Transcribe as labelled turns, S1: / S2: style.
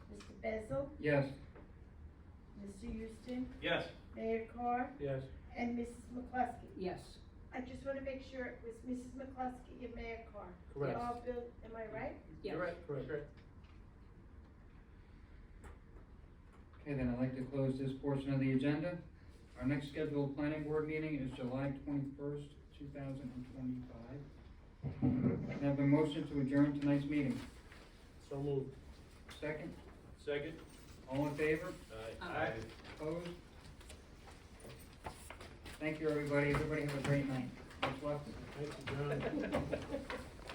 S1: Bezel,
S2: Yes.
S1: Mr. Houston,
S3: Yes.
S1: Mayor Carr,
S3: Yes.
S1: and Mrs. McCluskey.
S4: yes,
S1: I just want to make sure it was Mrs. McCluskey and Mayor Carr.
S3: Correct.
S1: All bill, am I right?
S4: yes.
S3: You're right, correct.
S2: Okay, then I'd like to close this portion of the agenda. Our next scheduled planning board meeting is July twenty-first, two thousand and twenty-five. Can I have a motion to adjourn tonight's meeting?
S3: So moved.
S2: Second,
S3: Second?
S2: all in favor,
S4: Aye.
S2: opposed? Thank you, everybody. Everybody have a great night. Much luck.
S3: Thank you, John.